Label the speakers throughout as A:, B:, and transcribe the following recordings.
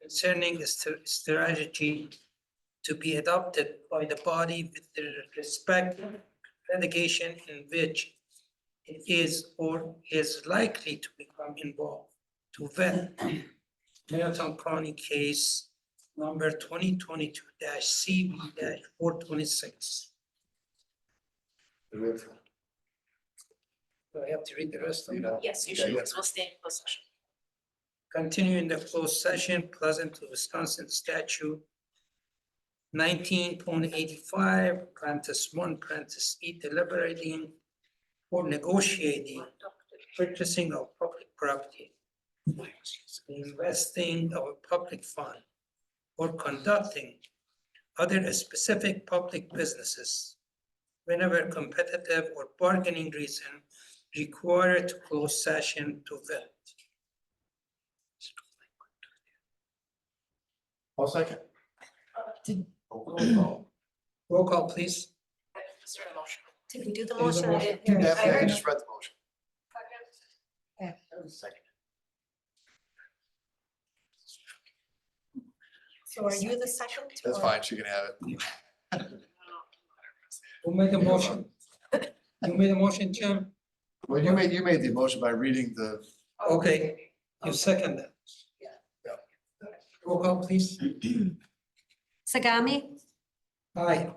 A: concerning the st- strategy to be adopted by the body with the respect litigation in which it is or is likely to become involved to vet Marathon County case number twenty twenty-two CB four twenty-six.
B: Move.
A: Do I have to read the rest of that?
C: Yes, you
B: Yeah,
C: should,
B: yeah.
C: we'll stay in closed session.
A: Continue in the closed session, pleasant to Wisconsin statute nineteen point eighty-five, parenthesis one, parenthesis E, deliberating or negotiating purchasing of public property, investing of a public fund, or conducting other specific public businesses whenever competitive or bargaining reason required to close session to vet.
B: I'll second. Oh,
D: Did,
A: Roll call, please.
C: Is there a motion?
D: did we do the
B: Any other
D: motion? I
B: motion?
D: didn't hear it.
B: Yeah,
D: I
B: I
D: heard,
B: just read the motion. Second.
D: so are you the second?
B: That's
D: or-
B: fine, she can have it.
A: Who made the motion? You made the motion, Jim?
B: Well, you made, you made the motion by reading the,
A: Okay, you second that.
B: Yeah.
A: Roll call, please.
E: Sagami,
A: Aye.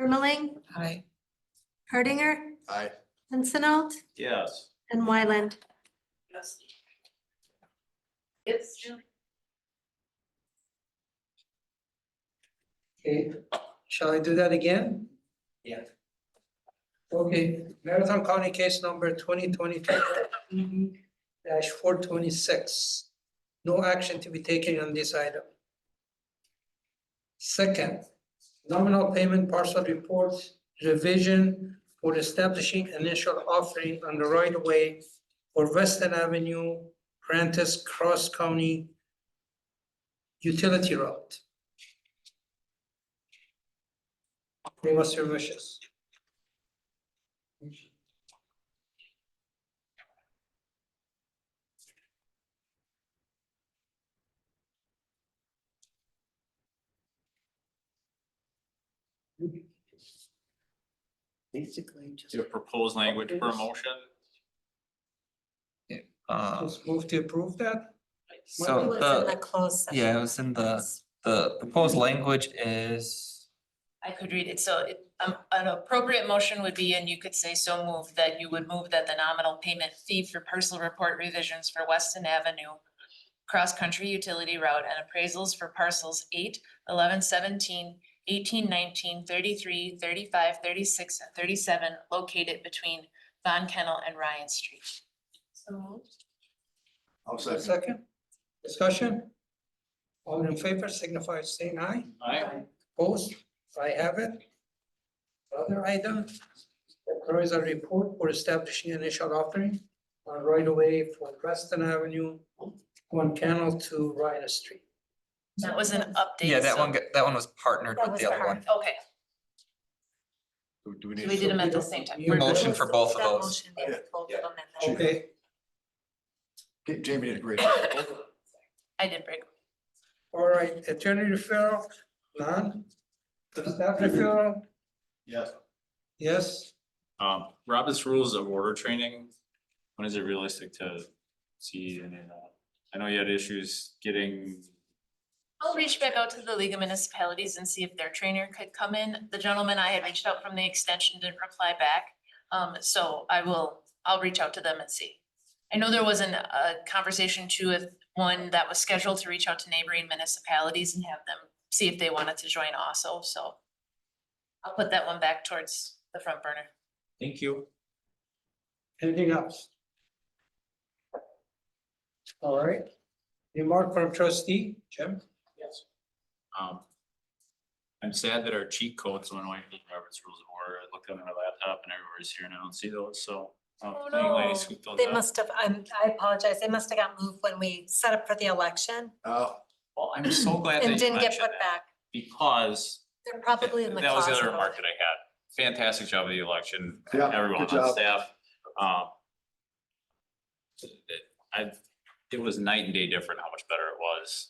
E: Ermeling,
A: Aye.
E: Hardinger,
B: I,
E: Pincinot,
F: Yes.
E: and Wyland.
C: Yes. Yes, Julie.
A: Okay, shall I do that again? Yeah. Okay, Marathon County case number twenty twenty-two dash four twenty-six. No action to be taken on this item. Second, nominal payment parcel reports revision for establishing initial offering on the right of way for Western Avenue, Prentice Cross County utility route. Name us your wishes.
G: Basically, just.
F: Do you propose language for a motion?
G: Uh,
A: Just move to approve that?
G: so
D: It was in the
G: the,
D: closed session.
G: yeah, it was in the, the proposed language is,
C: I could read it, so it, um, an appropriate motion would be, and you could say so move, that you would move that the nominal payment fee for parcel report revisions for Weston Avenue. Cross-country utility route and appraisals for parcels 8, 11, 17, 18, 19, 33, 35, 36, and thirty-seven located between Von Kennel and Ryan Street. So.
B: I'll second.
A: Second, discussion? All in favor signify by saying aye.
F: Aye.
A: Opposed, I have it. Other item, there is a report for establishing initial offering on right of way for Preston Avenue, one Canal to Ryan Street.
C: That was an update.
G: yeah, that
C: so-
G: one, got- that one was partnered
D: That
G: with
D: was
G: the other
D: part-
G: one.
C: Okay,
B: Do do we
C: so
B: need?
C: we did them
B: to-
C: at the same time.
A: You
C: We're good.
G: Motion for both of
D: That
G: those.
D: motion is
B: Yeah,
D: both
B: yeah.
D: of them and that-
A: Okay,
B: Ja- Jamie did a great. job.
C: I did break.
A: all right, attorney referral, none. Staff referral,
F: Yes.
A: yes.
F: Um, Robert's Rules of Order Training, when is it realistic to see any of that? I know you had issues getting,
C: I'll reach back out to the League of Municipalities and see if their trainer could come in. The gentleman I had reached out from the extension didn't reply back. Um, so I will, I'll reach out to them and see. I know there was an, a conversation too with one that was scheduled to reach out to neighboring municipalities and have them see if they wanted to join also, so. I'll put that one back towards the front burner.
F: thank you.
A: Anything else? All right. Remark from trustee, Jim? Yes.
F: Um. I'm sad that our cheat codes went away from Robert's Rules of Order. I looked on my laptop and everywhere's here and I don't see those, so. um,
D: Oh,
F: anyway,
D: no.
F: scoop those
D: They
F: up.
D: must have, I'm, I apologize, they must have got moved when we set up for the election
B: Oh,
F: Well, I'm so glad that
D: and
F: you
D: didn't get
F: mentioned
D: put
F: that
D: back.
F: because
D: They're probably in the
F: That was
D: closet.
F: the other
D: over
F: remark
D: there.
F: that I had. Fantastic job of the election,
B: yeah.
F: everyone
B: good
F: on
B: job.
F: staff. Um, it- I, it was night and day different how much better it was